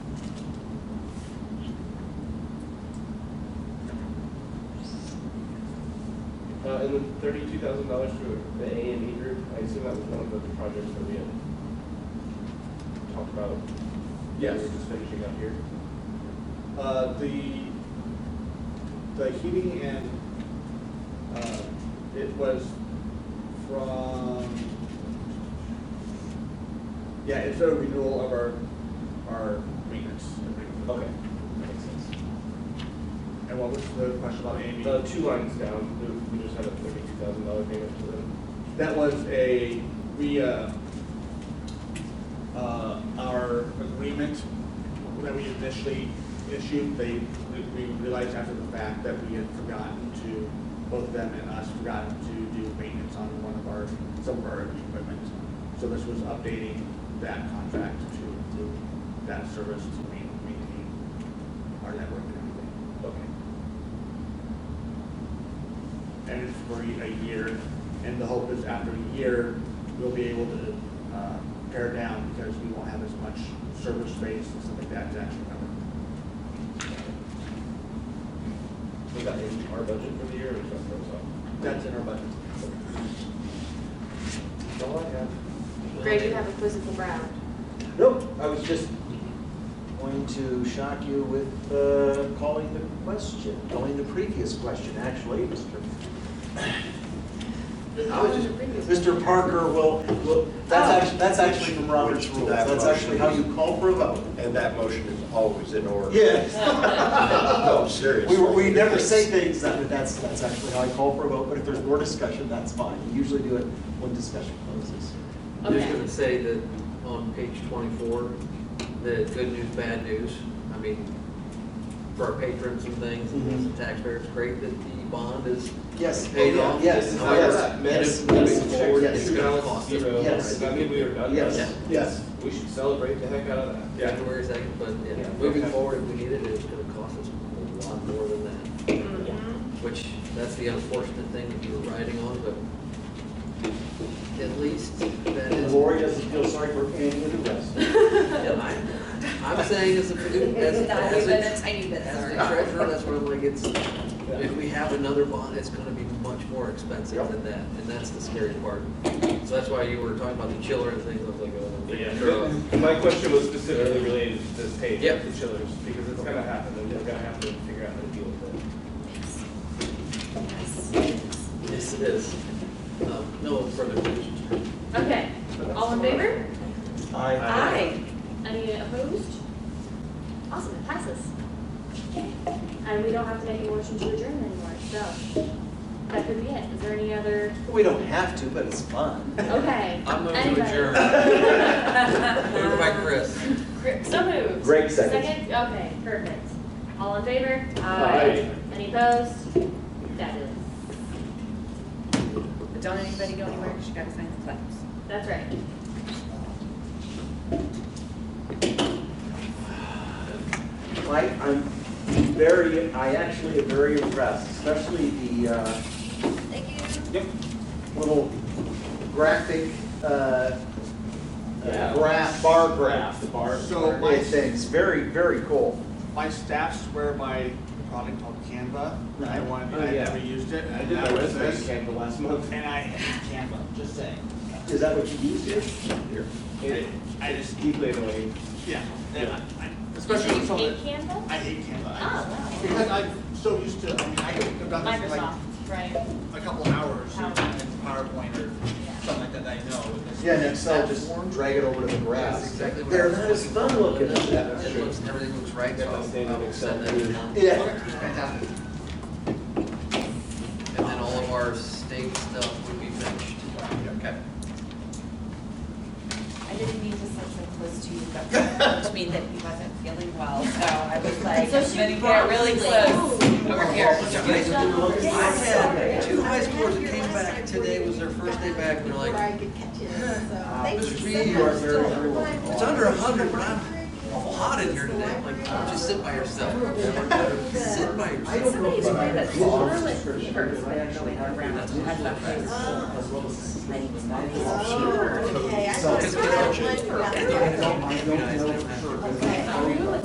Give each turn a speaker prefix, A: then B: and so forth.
A: Uh, and then thirty-two thousand dollars for the A and E group, I assume that was one of the projects that we had talked about.
B: Yes.
A: We were just finishing up here.
B: Uh, the, the heating and, uh, it was from, yeah, it's a renewal of our, our maintenance agreement.
A: Okay. That makes sense.
B: And what was the question about Amy?
A: The two lines down, we- we just had a thirty-two thousand dollar payment to them.
B: That was a, we, uh, uh, our agreement that we initially issued, they, we- we realized after the fact that we had forgotten to, both them and us forgotten to do maintenance on one of our, some of our equipment. So this was updating that contract to, to that service to main- maintain our network and everything.
A: Okay.
B: and it's for a year. And the hope is after a year, we'll be able to uh, pare down because we won't have as much service space and stuff like that to actually cover.
A: Was that in our budget for the year or just ours?
B: That's in our budget.
A: That's all I have.
C: Greg, you have a quizzical round.
D: Nope, I was just going to shock you with uh, calling the question, calling the previous question, actually, Mr. I was just- Mr. Parker will, will,
C: Oh.
D: that's actually, that's actually from Robert's
E: Which-
D: rules,
E: that
D: that's actually how you call for a vote.
E: And that motion is always in order.
D: Yes,
E: No, seriously.
D: we, we never say things that, but that's, that's actually how I call for a vote, but if there's more discussion, that's fine. We usually do it when discussion closes.
F: I'm just
C: Okay.
F: gonna say that on page twenty-four, the good news, bad news, I mean, for our patrons and things, and as a taxpayer, it's great that the bond is
D: Yes. Oh,
F: paid
D: yeah,
F: off.
D: Yes,
F: However,
D: yes,
F: and
D: yes,
F: if moving
D: yes,
F: forward,
D: yes.
F: it's gonna cost us.
A: Zero.
D: Yes.
A: Does that mean we are done?
D: Yes, yes.
A: We should celebrate the heck out of that.
B: Yeah.
F: January second, but yeah,
D: Yeah.
F: moving
D: Okay.
F: forward, if we need it, it's gonna cost us a lot more than that,
C: Mhm.
F: which, that's the unfortunate thing that you were riding on, but at least that
D: And
F: is.
D: Lori doesn't feel sorry for any of the rest.
F: Yeah, I'm, I'm saying as a, as, as a.
G: tiny bit,
F: As the treasurer, that's where I'm like, it's, if we have another bond, it's gonna be much more expensive than that, and that's the scary part. So that's why you were talking about the chiller and things, I was like, oh.
A: Yeah,
F: sure.
A: but my question was specifically related to this page,
F: Yep.
A: the chillers, because it's gonna happen, and we're gonna have to figure out how to deal with it.
F: Yes, it is. Um, no further questions.
C: Okay, all in favor?
D: I,
C: Aye. Any opposed? Awesome, it passes. And we don't have to make a motion to adjourn anymore, so that could be it. Is there any other,
D: we don't have to, but it's fun.
C: okay.
F: I'm going to
C: Anybody?
F: adjourn, moved by Chris.
C: Chris, So moved.
D: Greg seconds.
C: Second, okay, perfect. All in favor?
A: Aye.
C: Any opposed? Fabulous.
G: But don't anybody go anywhere, 'cause you gotta sign the claims.
C: That's right.
D: I, I'm very, I actually am very impressed, especially the, uh,
G: Thank
D: little graphic, uh,
B: Yeah.
D: graph, bar graph. Bar.
B: So my-
D: Things, very, very cool.
B: My staff swear by a product called Canva, and I wanted,
A: Oh,
B: I
A: yeah.
B: never used it,
A: I
B: and
A: did
B: now
A: my
B: it's
A: resume
B: this.
A: scan for last month.
B: And I hate Canva, just saying.
D: Is that what you use here?
A: It, I just deeply annoying.
B: Yeah, and I, I-
C: Is
B: especially
C: it
B: with someone,
C: in Canva?
B: I hate Canva. I
C: Oh,
B: just-
C: wow.
B: Because I'm so used to, I mean, I could, I've done this for like
C: Microsoft, right?
B: a couple hours in
C: Power.
B: PowerPoint or something like that, I know. and it's-
D: Yeah, and Excel, just drag it over to the graph.
F: That's exactly what I
D: They're
F: was
D: not as
F: looking
D: fun
F: for.
D: looking as that.
F: It looks, everything looks right, so
A: Got my
F: I'll-
A: standard
F: I'll
A: Excel
F: send that
A: here.
F: out.
D: Yeah.
F: Fantastic. And then all of our state stuff would be finished. Okay.
G: I didn't mean to sound so close to you, but it mean that he wasn't feeling well, so I was like,
C: So
G: I'm
C: she
G: gonna get really
C: brought-
G: close over here.
F: I had two high scores that came back today, was their first day back, and they're like,
D: Mr. Uh, Reed, you are very, very welcome.
F: it's under a hundred, but I'm awful hot in here today. I'm like, just sit by yourself. Sit by
D: I
F: yourself.
D: don't know
G: Somebody's
D: if I
G: worried that
D: have the office
G: Charlotte
D: description,
G: Beaver's
D: but I
G: been
D: actually
G: going
D: have the
G: around.
D: position
G: I've got that.
D: as well as-
H: Oh, okay, I
D: So-
H: thought it was one.
D: I don't, I don't know for sure. but I-